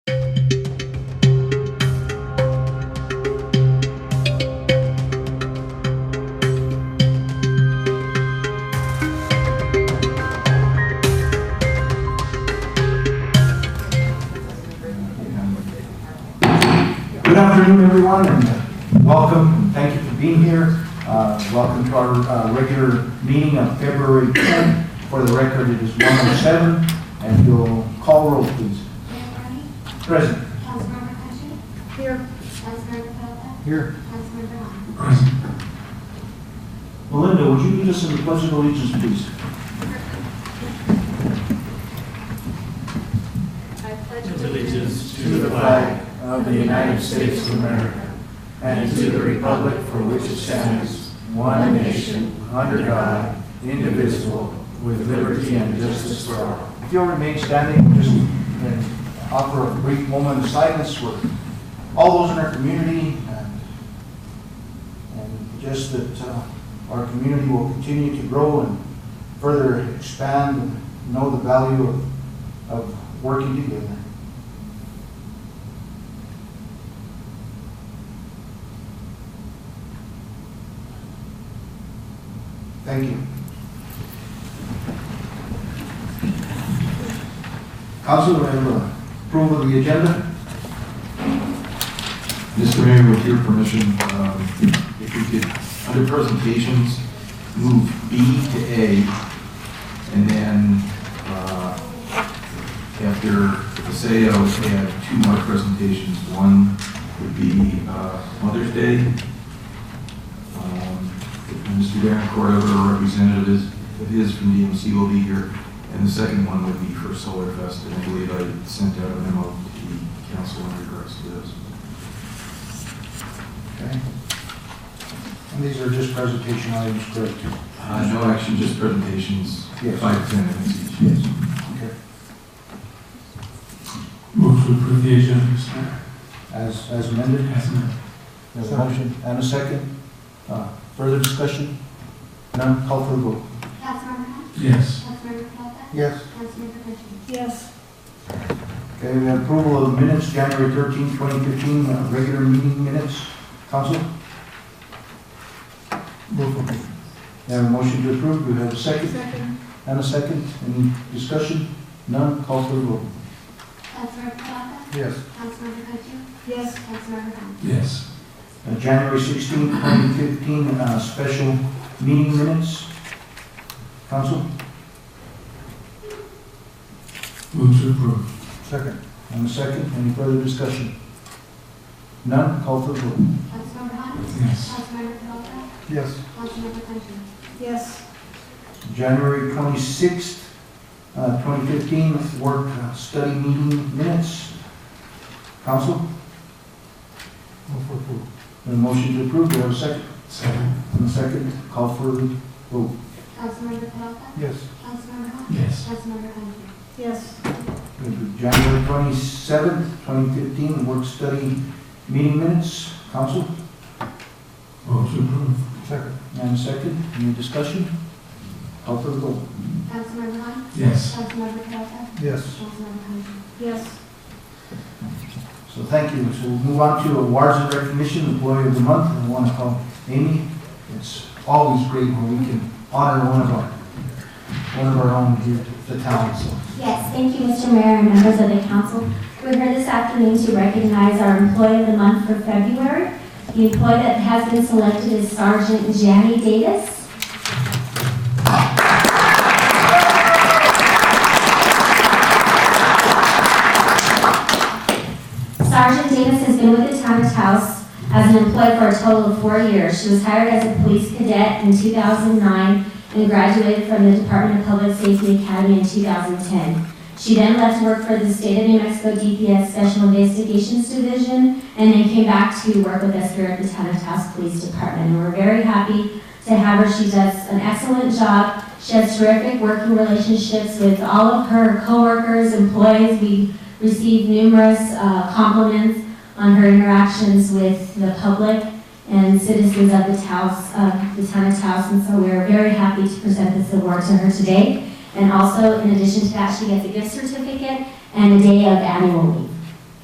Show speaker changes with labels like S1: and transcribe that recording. S1: Good afternoon, everyone, and welcome, and thank you for being here. Uh, Welcome to our uh, regular meeting of February 10th. For the record, it is 1:07, and you'll call roll, please.
S2: Mayor Barney,
S1: Present.
S2: Councilmember Cutchin. Here. Councilmember Falta,
S1: Here.
S2: Councilmember Long.
S1: Melinda, would you lead us in the pledge of allegiance, please?
S2: I pledge
S3: allegiance to the flag of the United States of America and to the republic for which it stands, one nation, under God, indivisible, with liberty and justice for all.
S1: If you'll remain standing, just and offer a brief moment of silence for all those in our community and, and just that uh, our community will continue to grow and further expand and know the value of, of working together. Thank you. Council, we have uh, approval of the agenda.
S4: Mr. Mayor, with your permission, um, if we could, under presentations, move B to A, and then uh, after Paseo, we have two more presentations. One would be uh, Mother's Day. Um, Mr. Darren Cordova, a representative is- of his from DMC, will be here. And the second one would be for Solar Fest, and I believe I sent out a memo to the council in regards to those.
S1: Okay. And these are just presentation items, correct?
S4: Uh, no action, just presentations,
S1: Yes.
S4: five, ten minutes each.
S1: Okay.
S5: Move to approve the agenda, Mr. Mayor.
S1: As, as amended?
S5: Yes, ma'am.
S1: There's a motion and a second. Uh, Further discussion? None, call for the vote.
S2: Councilmember Long,
S5: Yes.
S2: Councilmember Falta,
S1: Yes.
S2: Councilmember Cutchin.
S6: Yes,
S1: Okay, we have approval of minutes, January 13, 2015, uh, regular meeting minutes. Council? We have a motion to approve, we have a second
S6: second,
S1: and a second. Any discussion? None, call for the vote.
S2: Councilmember Falta,
S1: Yes.
S2: Councilmember Cutchin,
S6: yes,
S2: Councilmember Long.
S5: Yes.
S1: Uh, January 16, 2015, uh, special meeting minutes. Council?
S5: Move to approve.
S1: Second. And a second, any further discussion? None, call for the vote.
S2: Councilmember Long,
S5: Yes.
S2: Councilmember Falta,
S1: Yes.
S2: Councilmember Cutchin.
S6: yes,
S1: January 26th, uh, 2015, work uh, study meeting minutes. Council? Move for approval. motion to approve, do I have a second?
S5: Second.
S1: And a second, call for the vote.
S2: Councilmember Falta,
S1: Yes.
S2: Councilmember Long,
S5: Yes.
S2: Councilmember Cutchin.
S6: yes,
S1: January 27th, 2015, work study meeting minutes. Council?
S5: Move to approve.
S1: Second. And a second, any discussion? Call for the vote.
S2: Councilmember Long,
S5: Yes.
S2: Councilmember Falta,
S1: Yes.
S2: Councilmember Cutchin.
S6: yes,
S1: So thank you. So we'll move on to awards and recognition, employee of the month, and I want to call Amy. It's always great when we can honor one of our, one of our own here at the town, so.
S7: Yes, thank you, Mr. Mayor and members of the council. We're here this afternoon to recognize our employee of the month for February. The employee that has been selected is Sergeant Janny Davis. Sergeant Davis has been with the town of Taos as an employee for a total of four years. She was hired as a police cadet in 2009 and graduated from the Department of Public Safety Academy in 2010. She then left to work for the State of New Mexico DPS Special Investigations Division and then came back to work with us here at the Town of Taos Police Department. And we're very happy to have her. She does an excellent job. She has terrific working relationships with all of her coworkers, employees. We received numerous uh, compliments on her interactions with the public and citizens of the Taos, of the town of Taos, and so we're very happy to present this award to her today. And also, in addition to that, she gets a gift certificate and a day of annual leave.